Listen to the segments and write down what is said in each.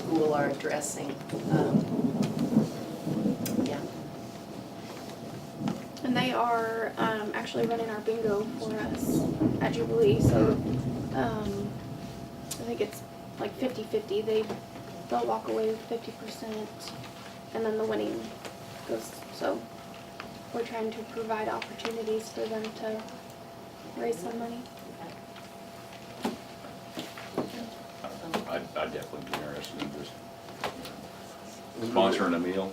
people are addressing. Um, Yeah, And they are um, actually running our bingo for us at Jubilee. So um, I think it's like 50 50. They, they'll walk away with 50%, and then the winning goes. So we're trying to provide opportunities for them to raise some money. I'd, I'd definitely be interested in just you know, sponsoring a meal,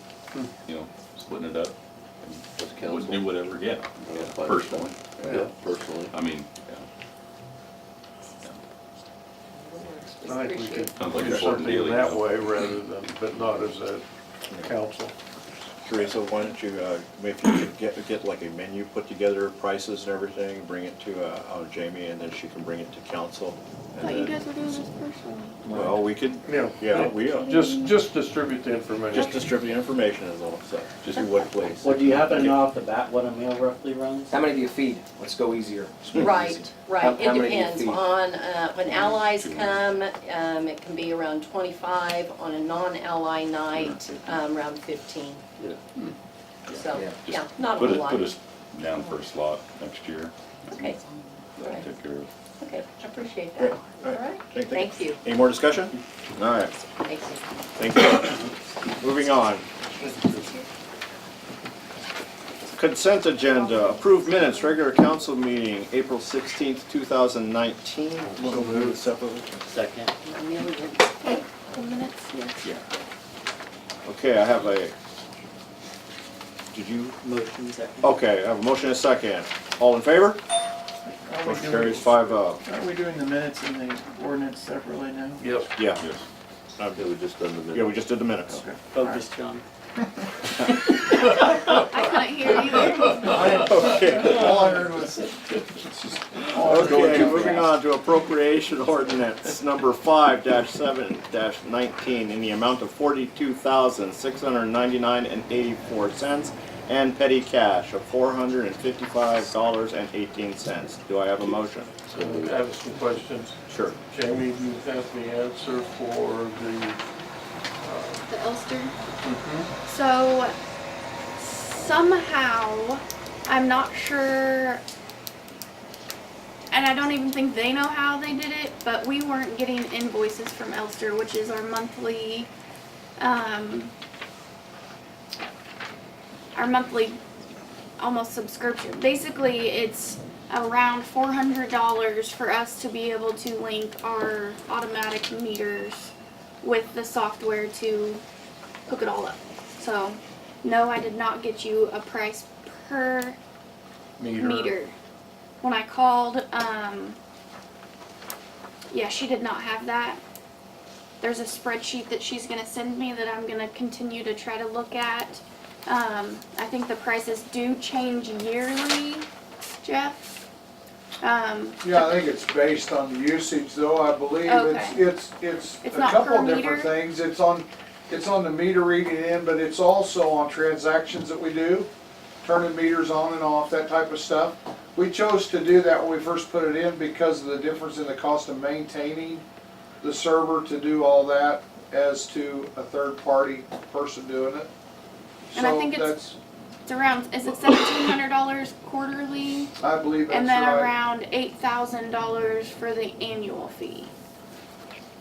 you know, splitting it up. and That's Would council. do whatever, yeah, Yeah, yeah, personally, Yeah, personally. I mean, yeah. I think we could Sounds like look an at important something deal, in you that know. way rather than, but not as a council. Teresa, why don't you, uh, if you could get, get like a menu put together, prices and everything, bring it to, uh, uh, Jamie, and then she can bring it to council. I and thought you then- guys were doing this personally. Well, we could, Yeah. yeah, we, uh, Just, just distribute the just information. distribute information is all, so, just do what place. Well, do you happen to know off the bat what a meal roughly runs? How many do you feed? Let's go easier. right, How- right, it how many do you depends feed? on, uh, when allies come, um, it can be around twenty-five, on a non-ally night, um, around fifteen. Hmm. Yeah. So, Yeah. yeah, not a Put whole us, lot, put us down for a slot next year, okay, all right, take care of. okay, I appreciate Yeah, that, all all right. right, Thank- thank you, Any more discussion? All right, thank you. thank you. Moving on. Consent agenda, approved minutes, regular council meeting, April sixteenth, two thousand nineteen. So moved separately. Second. Million. The minutes, yes. Okay, I have a, did you, Motion second. Oh. okay, I have a motion and a second. All in favor? Are we Motion carries doing, five oh. are we doing the minutes and the ordinance separately now? Yep. Yeah, Yes. Yeah, we just done the minutes. yeah, we just did the minutes. Okay. Focus, John. I couldn't hear you. Okay, All I heard was. okay, moving on to appropriation ordinance number five dash seven dash nineteen in the amount of forty-two thousand, six hundred ninety-nine and eighty-four cents and petty cash of four hundred and fifty-five dollars and eighteen cents. Do I have a motion? I have some questions. Sure. Jamie, you have the answer for the, The Ulster. So somehow, I'm not sure, and I don't even think they know how they did it, but we weren't getting invoices from Elster, which is our monthly, um, our monthly almost subscription. Basically, it's around four hundred dollars for us to be able to link our automatic meters with the software to hook it all up. So, no, I did not get you a price per meter. meter. When I called, um, yeah, she did not have that. There's a spreadsheet that she's gonna send me that I'm gonna continue to try to look at. Um, I think the prices do change yearly, Jeff. Um, Yeah, I think it's based on the usage though, I believe. It's, Okay. it's, it's It's a not couple per of different meter? things. It's on, it's on the meter reading in, but it's also on transactions that we do, turning meters on and off, that type of stuff. We chose to do that when we first put it in because of the difference in the cost of maintaining the server to do all that as to a third-party person doing it. And I think it's- So it's around, is it seventeen hundred dollars quarterly? that's, I believe that's right. And then around eight thousand dollars for the annual fee.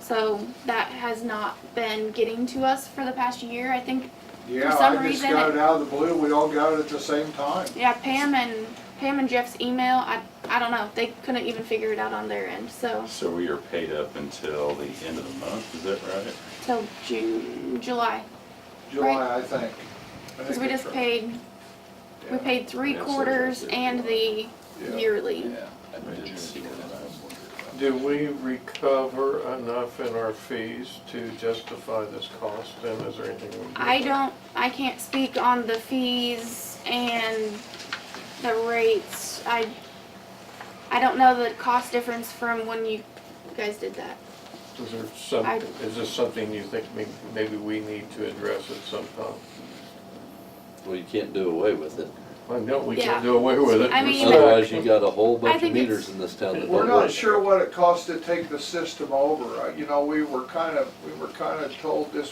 So that has not been getting to us for the past year, I think, Yeah, some I just reason got it- it out of the blue. We all got it at the same time. yeah, Pam and, Pam and Jeff's email, I, I don't know, they couldn't even figure it out on their end, so, So we are paid up until the end of the month, is that right? till June, July. July, I think. I Cause think we that's just right. paid, we Yeah. paid three Yeah, so quarters that's it. and the Yeah. yearly. I didn't see that, I was wondering Do we recover enough in our fees to justify this cost and is there anything? we can do? I don't, I can't speak on the fees and the rates. I, I don't know the cost difference from when you guys did that. Is there some, I- is this something you think may- maybe we need to address at some time? Well, you can't do away with it. I know we Yeah. can't do away with it. I mean- Otherwise, you got a whole I bunch of think meters it's- in this town that don't We're work. not sure what it costs to take the system over. Uh, You know, we were kind of, we were kind of told this